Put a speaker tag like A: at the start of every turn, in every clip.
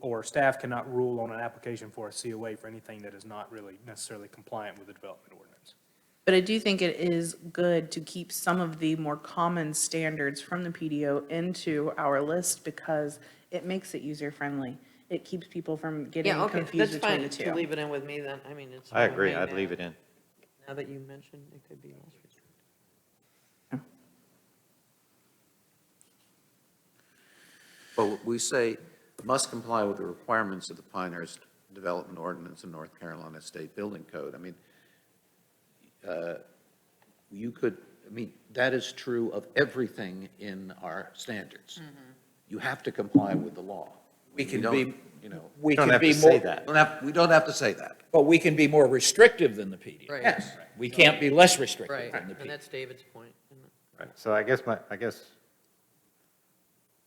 A: or staff cannot rule on an application for a COA for anything that is not really necessarily compliant with the development ordinance.
B: But I do think it is good to keep some of the more common standards from the PDO into our list because it makes it user-friendly. It keeps people from getting
C: Yeah, okay,
B: confused
C: that's
B: between
C: fine
B: the
C: to
B: two.
C: leave it in with me then, I mean, it's.
D: I
C: fine with
D: agree,
C: me
D: I'd
C: now.
D: leave it in.
C: Now that you mentioned, it could be less restrictive.
E: But we say must comply with the requirements of the Pinehurst Development Ordinance and North Carolina State Building Code. I mean, uh, you could, I mean, that is true of everything in our standards. You have to comply with the law.
F: We
E: You
F: can
E: don't,
F: be-
E: You know,
F: We
D: Don't
F: can
D: have
F: be
D: to say
F: more,
D: that.
E: we don't have- we don't have to say that.
F: but we can be more restrictive than the PD.
C: Right.
E: Yes.
F: We can't be less restrictive
C: Right,
F: than the
C: and
F: PD.
C: that's David's point. isn't it?
D: Right, so I guess my, I guess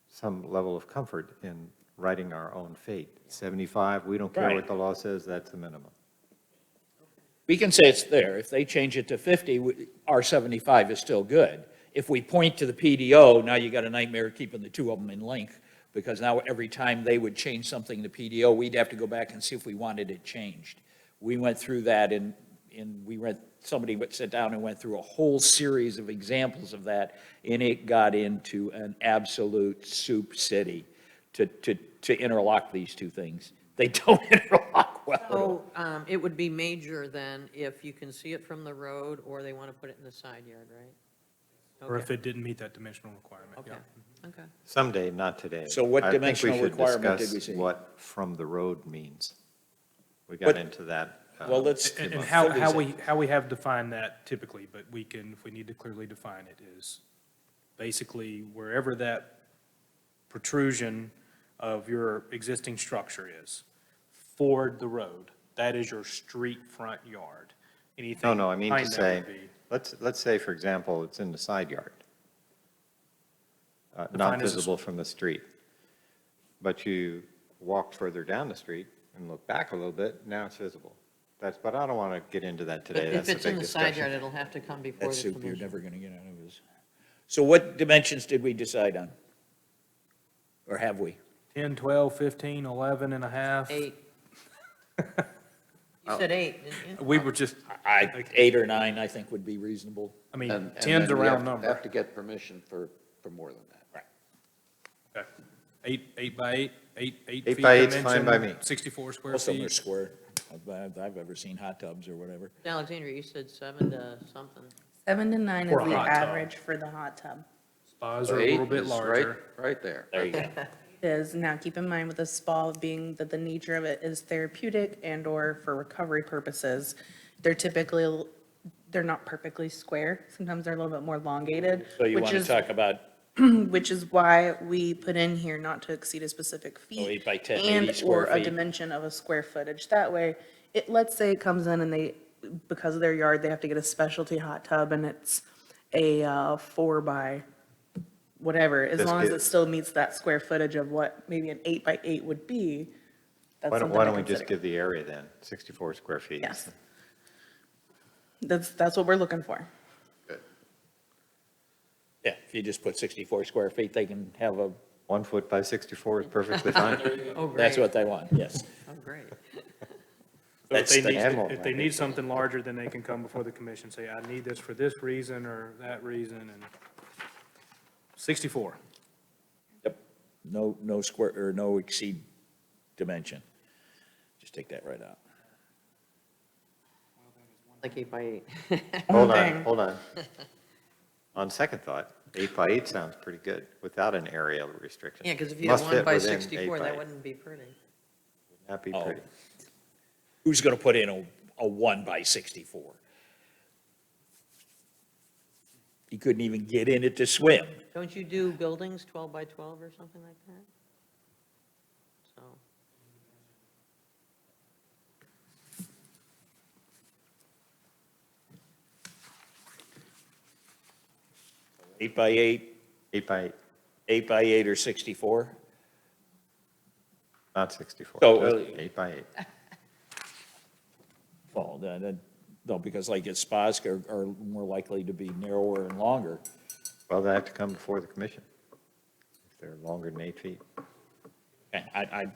D: some level of comfort in writing our own fate. 75, we don't care
F: Right.
D: what the law says, that's the minimum.
F: We can say it's there. If they change it to 50, we- our 75 is still good. If we point to the PDO, now you got a nightmare keeping the two of them in link, because now every time they would change something to PDO, we'd have to go back and see if we wanted it changed. We went through that and, and we went, somebody went- sat down and went through a whole series of examples of that, and it got into an absolute soup city to, to, to interlock these two things. They don't interlock well at all.
C: So um, it would be major then if you can see it from the road or they want to put it in the side yard, right?
A: Or if
C: Okay,
A: it didn't meet that dimensional requirement, yeah.
C: Okay, okay.
D: Someday, not today.
F: So what
D: I think we
F: dimensional
D: should
F: requirement did we
D: discuss
F: see?
D: What from the road means. We
F: What-
D: got into that. uh,
F: Well, let's.
A: And and how, how we, how we have defined that typically, but we can, if we need to clearly define it, is basically wherever that protrusion of your existing structure is, forward the road, that is your street front yard. Anything
D: No, no, I mean to
A: behind that
D: say,
A: would be
D: let's, let's say, for example, it's in the side yard, uh, not
A: Defined as a s-
D: visible from the street. But you walk further down the street and look back a little bit, now it's visible. That's, but I don't want to get into that
C: But
D: today,
C: if
D: that's a
C: it's in
D: big
C: the side yard,
D: discussion.
C: it'll have to come before
F: That
C: the
F: soup you're
C: commission.
F: never going to get out of is. So what dimensions did we decide on? Or have we?
A: 10, 12, 15, 11 and a half.
C: Eight. You said eight, didn't you?
A: We were just,
F: I, eight or nine, I think would be reasonable.
A: I mean,
E: And- and
A: ten's a
E: then we
A: round
E: have-
A: number.
E: Have to get permission for, for more than that.
A: Okay. Eight, eight by eight, eight, eight
D: Eight
A: feet
D: by eight's
A: dimension,
D: fine by me.
A: Sixty-four square
F: Most of them are
A: feet.
F: square. I've- I've, I've ever seen hot tubs or whatever.
C: Alexandria, you said seven to something.
B: Seven to nine is
A: Or a
B: the
A: hot tub.
B: average for the hot tub.
A: Spas are a little
E: Eight
A: bit
E: is
A: larger.
E: right- Right there.
F: There you go.
B: Is, now keep in mind with a spa being that the nature of it is therapeutic and/or for recovery purposes, they're typically, they're not perfectly square. Sometimes they're a little bit more elongated,
F: So you
B: which
F: want to
B: is,
F: talk about
B: which is why we put in here not to exceed a specific feet.
F: eight by 10, 80
B: And
F: square
B: or a
F: feet.
B: dimension of a square footage. That way, it, let's say it comes in and they, because of their yard, they have to get a specialty hot tub and it's a uh, four by whatever, as
D: This
B: long as
D: is-
B: it still meets that square footage of what maybe an eight by eight would be, that's
D: Why don't,
B: something
D: why
B: to
D: don't we just
B: consider.
D: give the area then, 64 square feet?
B: Yes. That's, that's what we're looking for.
F: Yeah, if you just put 64 square feet, they can have a,
D: One foot by 64 is perfectly fine.
C: Oh, great.
F: that's what they want, yes.
C: Oh, great.
A: So if
F: That's
A: they
F: the
A: need,
D: animal
A: if they
D: plan.
A: need something larger, then they can come before the commission, say, I need this for this reason or that reason, and sixty-four.
F: Yep. No, no square, or no exceed dimension. Just take that right out.
C: Like eight by eight.
D: Hold
B: thing.
D: on, hold on. On second thought, eight by eight sounds pretty good without an aerial restriction.
C: Yeah, because if you had
D: Must
C: one
D: fit
C: by
D: within eight
C: 64,
D: by
C: that
D: eight.
C: wouldn't be pretty.
D: That'd be
F: Oh.
D: pretty.
F: Who's going to put in a, a one by 64? He couldn't even get in it to swim.
C: Don't you do buildings 12 by 12 or something like that? So,
F: Eight by eight,
D: Eight by eight,
F: eight by eight or 64?
D: not 64.
F: So,
D: just
F: uh,
D: Eight by eight.
F: Well, then, then- no, because like his spas are, are more likely to be narrower and longer.
D: Well, they have to come before the commission if they're longer than eight feet.
F: And I, I,